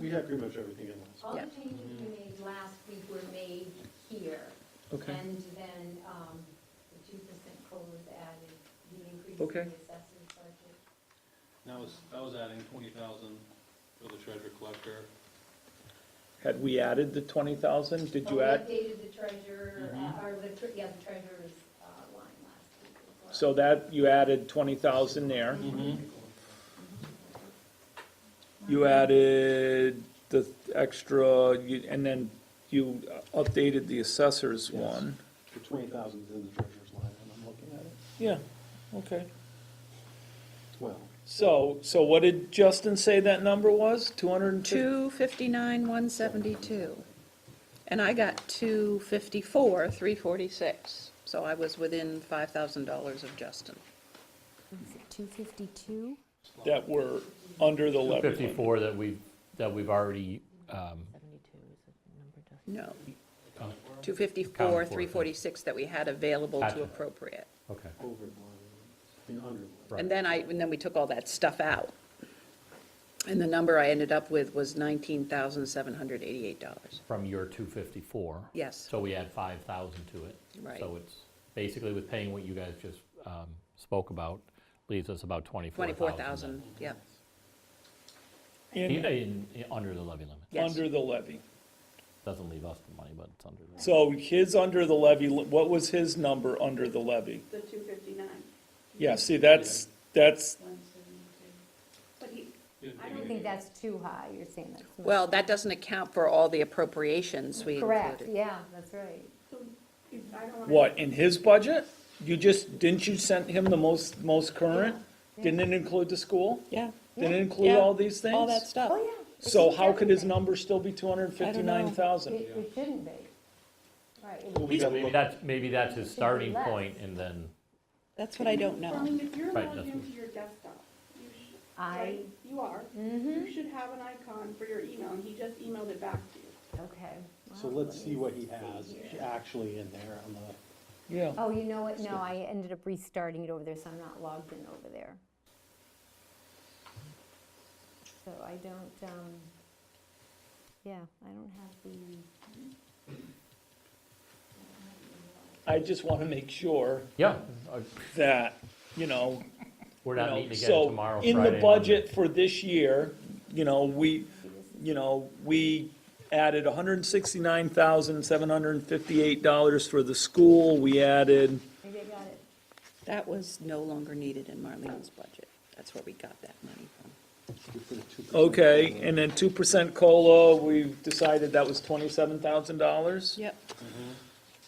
we had pretty much everything in Mm-hmm. last. All the Yeah. changes we made last week were made here. Okay. And then um, the 2% COLA was added, the increase in the Okay. assessor's budget. That was, that was adding twenty thousand for the treasure collector. Had we added the twenty thousand? Did But you add? We updated the treasurer, Mhm. uh, or the, tre- yeah, the treasurer's uh, line last week as well. So that, you added twenty thousand there. Mm-hmm. You added the extra, you- and then you updated the assessor's Yes. one. The twenty thousand's in the treasurer's line, and I'm looking at it. Yeah, okay. Well, So, so what did Justin say that number was? Two hundred and two? Two fifty-nine, one seventy-two. And I got two fifty-four, three forty-six, so I was within five thousand dollars of Justin. Two fifty-two? That were under the levy limit? 54 that we've, that we've already, um, Seventy-two is the number, Justin. No, oh, two Accounted fifty-four, for, three forty-six that we had available Gotcha. to appropriate. okay. over one, I mean, under one. Right. And then I, and then we took all that stuff out. And the number I ended up with was nineteen thousand, seven hundred eighty-eight dollars. From your 254. Yes. So we add 5,000 to it. Right. So it's basically with paying what you guys just um, spoke about, leaves us about 24,000. Twenty-four thousand, yep, then. In- In, in- under the levy limit. yes. Under the levy. Doesn't leave us the money, but it's under. the- So his under the levy, li- what was his number under the levy? The two fifty-nine, Yeah, see, that's, that's, one seventy-two. But he, I don't think that's too high, you're saying that's. much. Well, that doesn't account for all the appropriations we Correct, included. yeah, that's right. so, if I don't wanna. what, in his budget? You just, didn't you send him the most, most current? Didn't it include the school? Yeah. Didn't it include all these things? All that stuff. Oh, yeah. it So should how could his everything. number still be two hundred and fifty-nine thousand? It, it shouldn't be. Right, it Well, would- we gotta Maybe look- that's, maybe that's his be starting less. point and then, That's what I don't I know. mean, if you're Right, logged nothing. into your desktop, you should, I, right, you are, you should have an icon for your email, and he just emailed it back to you. okay. So let's see what he has actually in there on the, Yeah. Oh, you know what, no, I ended up restarting it over there, so I'm not logged in over there. So I don't, um, yeah, I don't have the. I just want to make sure yeah, uh, that, you know, we're you not know, meeting again so tomorrow, Friday. in the Monday. budget for this year, you know, we, you know, we added hundred and sixty-nine thousand, seven hundred and fifty-eight dollars for the school. We added, Maybe I got it. That was no longer needed in Marlene's budget. That's where we got that money from. we put a two percent. okay, and then two percent COLA, we decided that was twenty-seven thousand dollars. Yep.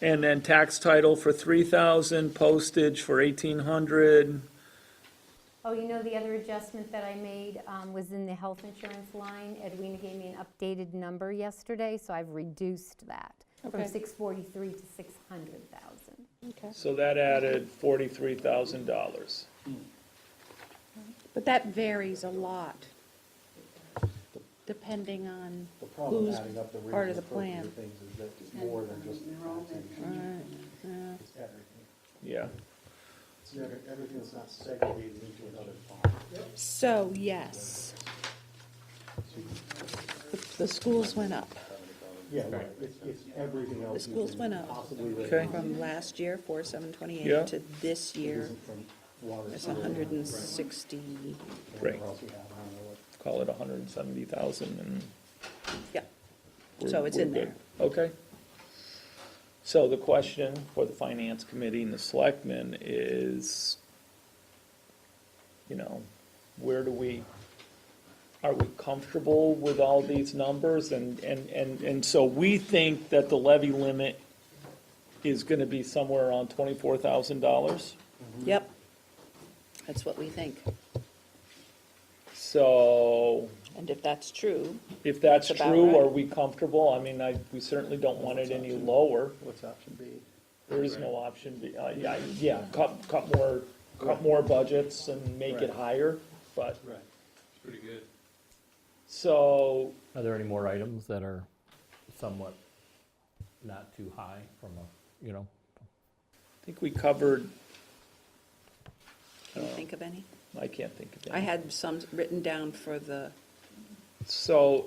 And then tax title for three thousand, postage for eighteen hundred. Oh, you know, the other adjustment that I made um, was in the health insurance line. Edwina gave me an updated number yesterday, so I've reduced that from Okay. 643 to 600,000. So that added forty-three thousand dollars. But that varies a lot, depending on, The problem Who's adding up the part range of of the plan? appropriate things is that it's more than just the taxation, uh, it's everything. Yeah. It's never, everything's not segregated into another fund. so yes. The- The schools went up Yeah, right, it's, it's everything else. The schools is went up. Possibly. that Okay. From last year, four seven Yeah. twenty-eight, to this year, isn't from water. it's sewer, hundred and right, sixty, Whatever else we have, I don't know what. Call it a hundred and seventy thousand and. yeah. we're- So it's we're in good. Okay. So the question for the finance committee and the selectmen is, you know, where do we, are we comfortable with all these numbers? And, and, and, and so we think that the levy limit is gonna be somewhere around twenty-four thousand dollars. Yep. That's what we think. So And if that's true, if that's That's about true, right. are we comfortable? I mean, I, we certainly don't want it any lower. What's option B? There is no option, B. Uh, yeah, yeah, cut, cut more, cut more budgets and make it Right. higher, but, Right. Pretty good. so, Are there any more items that are somewhat not too high from a, you know, I think we covered, can you Uh, think of any? I can't think of I any. had some written down for the So,